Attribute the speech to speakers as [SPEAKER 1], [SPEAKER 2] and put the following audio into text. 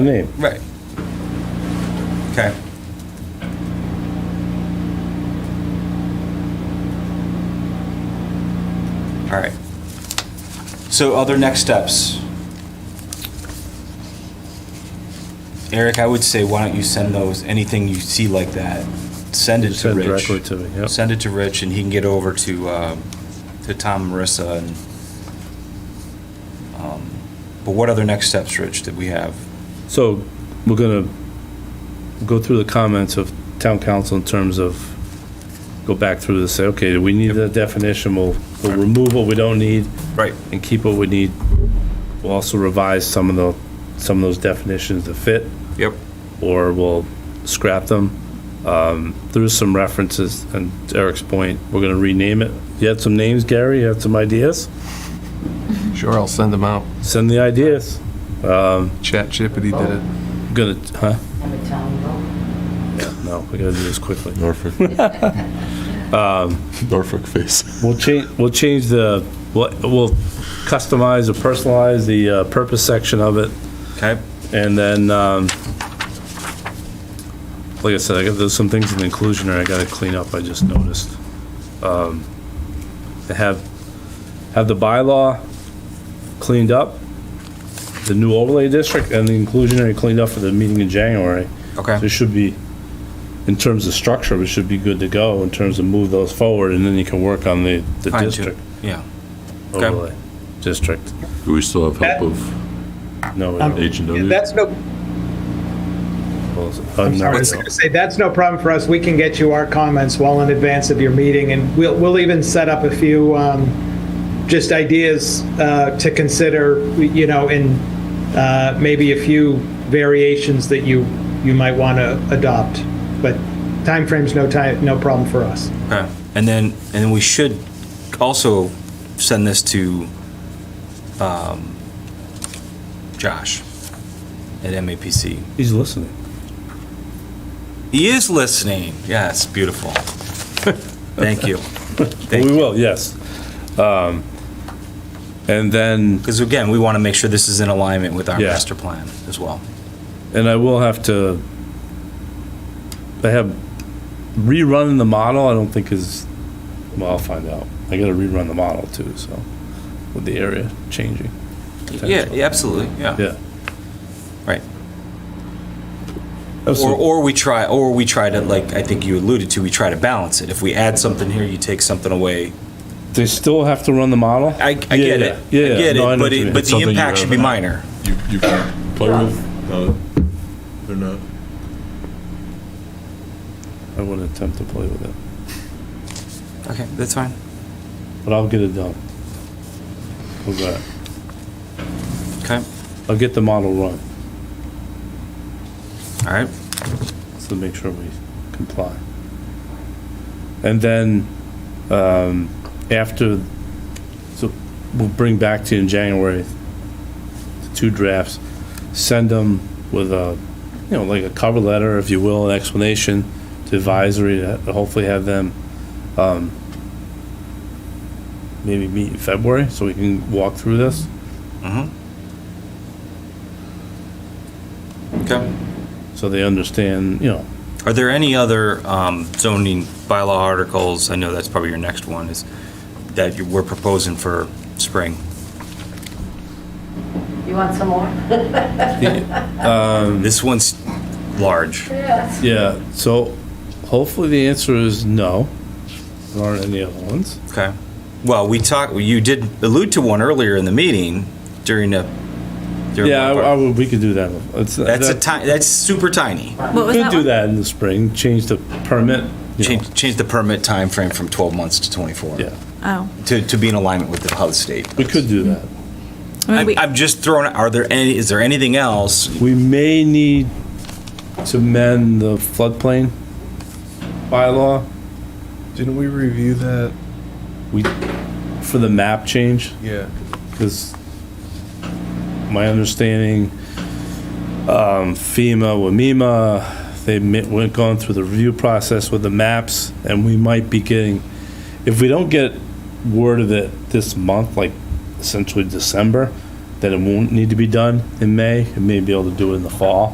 [SPEAKER 1] name.
[SPEAKER 2] Right. Okay. All right. So other next steps. Eric, I would say, why don't you send those, anything you see like that, send it to
[SPEAKER 1] Send
[SPEAKER 2] Rich.
[SPEAKER 1] directly to me, yep.
[SPEAKER 2] Send it to Rich and he can get over to, uh, to Tom, and Marissa and, um, but what other next steps, Rich, that we have?
[SPEAKER 1] So we're gonna go through the comments of town council in terms of, go back through this, say, okay, we need that definition, we'll, we'll remove what we don't need
[SPEAKER 2] Right.
[SPEAKER 1] and keep what we need. We'll also revise some of the, some of those definitions to fit,
[SPEAKER 2] Yep.
[SPEAKER 1] or we'll scrap them. Um, there's some references, and to Eric's point, we're gonna rename it. You had some names, Gary, you had some ideas?
[SPEAKER 3] Sure, I'll send them out.
[SPEAKER 1] Send the ideas.
[SPEAKER 3] ChatGPT did it.
[SPEAKER 1] Gonna, huh?
[SPEAKER 4] I'm a town road.
[SPEAKER 1] No, we gotta do this quickly.
[SPEAKER 5] Norfolk. Norfolk face.
[SPEAKER 1] We'll change, we'll change the, we'll we'll customize or personalize the uh, purpose section of it,
[SPEAKER 2] Okay.
[SPEAKER 1] and then, um, like I said, I got, there's some things in the inclusionary I gotta clean up, I just noticed. Um, to Have, have the bylaw cleaned up, the new overlay district and the inclusionary cleaned up for the meeting in January. So
[SPEAKER 2] Okay.
[SPEAKER 1] It should be, in terms of structure, we should be good to go in terms of move those forward, and then you can work on the, the
[SPEAKER 2] Fine, too.
[SPEAKER 1] district
[SPEAKER 2] Yeah. Okay.
[SPEAKER 1] overlay. District,
[SPEAKER 5] Do we still have help of
[SPEAKER 1] no, we don't.
[SPEAKER 5] H and
[SPEAKER 6] Yeah,
[SPEAKER 5] W?
[SPEAKER 6] That's no,
[SPEAKER 1] Well,
[SPEAKER 6] I'm
[SPEAKER 1] no,
[SPEAKER 6] sorry, I
[SPEAKER 1] we
[SPEAKER 6] was
[SPEAKER 1] don't.
[SPEAKER 6] gonna say, that's no problem for us. We can get you our comments well in advance of your meeting, and we'll, we'll even set up a few, um, just ideas, uh, to consider, you know, and, uh, maybe a few variations that you, you might want to adopt. But timeframe's no time, no problem for us.
[SPEAKER 2] Okay. And then, and then we should also send this to, um, Josh at MAPC.
[SPEAKER 1] He's listening.
[SPEAKER 2] He is listening. Yes, beautiful. Thank you. Thank
[SPEAKER 1] We
[SPEAKER 2] you.
[SPEAKER 1] will, yes. Um, And then,
[SPEAKER 2] Because again, we want to make sure this is in alignment with our
[SPEAKER 1] Yeah.
[SPEAKER 2] master plan as well.
[SPEAKER 1] and I will have to, I have, rerunning the model, I don't think is, well, I'll find out. I gotta rerun the model too, so, with the area changing.
[SPEAKER 2] Yeah, yeah, absolutely, yeah.
[SPEAKER 1] Yeah.
[SPEAKER 2] Right.
[SPEAKER 1] That's-
[SPEAKER 2] Or, or we try, or we try to, like, I think you alluded to, we try to balance it. If we add something here, you take something away.
[SPEAKER 1] They still have to run the model?
[SPEAKER 2] I, I get it. I
[SPEAKER 1] Yeah, yeah.
[SPEAKER 2] get
[SPEAKER 1] No, I
[SPEAKER 2] it,
[SPEAKER 1] know
[SPEAKER 2] but
[SPEAKER 1] what you
[SPEAKER 2] it,
[SPEAKER 1] mean.
[SPEAKER 2] but
[SPEAKER 5] It's
[SPEAKER 2] the
[SPEAKER 5] something you
[SPEAKER 2] impact should be
[SPEAKER 5] haven't-
[SPEAKER 2] minor.
[SPEAKER 5] You, you can play with? No, they're not.
[SPEAKER 1] I wouldn't attempt to play with it,
[SPEAKER 2] Okay, that's fine.
[SPEAKER 1] but I'll get it done. How's that?
[SPEAKER 2] Okay,
[SPEAKER 1] I'll get the model run,
[SPEAKER 2] all right.
[SPEAKER 1] so to make sure we comply. And then, um, after, so we'll bring back to you in January, the two drafts, send them with a, you know, like a cover letter, if you will, an explanation to advisory, to hopefully have them, um, maybe meet in February, so we can walk through this.
[SPEAKER 2] Mm-hmm. Okay.
[SPEAKER 1] so they understand, you know,
[SPEAKER 2] Are there any other um, zoning bylaw articles, I know that's probably your next one, is that you we're proposing for spring?
[SPEAKER 4] You want some more?
[SPEAKER 2] This one's large.
[SPEAKER 4] Yes.
[SPEAKER 1] yeah, so hopefully the answer is no. There aren't any other ones.
[SPEAKER 2] Okay. Well, we talked, you did allude to one earlier in the meeting during a. during
[SPEAKER 1] Yeah, I,
[SPEAKER 2] one of
[SPEAKER 1] I
[SPEAKER 2] our-
[SPEAKER 1] would, we could do that. It's-
[SPEAKER 2] That's a
[SPEAKER 1] that-
[SPEAKER 2] ti, that's super tiny.
[SPEAKER 7] What was
[SPEAKER 1] Could
[SPEAKER 7] that
[SPEAKER 1] do
[SPEAKER 7] one?
[SPEAKER 1] that in the spring, change the permit, you know,
[SPEAKER 2] Change, change the permit time frame from 12 months to 24.
[SPEAKER 1] yeah,
[SPEAKER 7] Oh.
[SPEAKER 2] To, to be in alignment with the, how the state.
[SPEAKER 1] we could do that.
[SPEAKER 7] I mean,
[SPEAKER 2] I'm,
[SPEAKER 7] we-
[SPEAKER 2] I'm just throwing, are there any, is there anything else?
[SPEAKER 1] We may need to mend the floodplain bylaw
[SPEAKER 3] Didn't we review that?
[SPEAKER 1] for the map change.
[SPEAKER 3] Yeah.
[SPEAKER 1] Because my understanding, um, FEMA, WMIMA, they mi- went, gone through the review process with the maps, and we might be getting, if we don't get word of it this month, like essentially December, that it won't need to be done in May, and maybe be able to do it in the fall.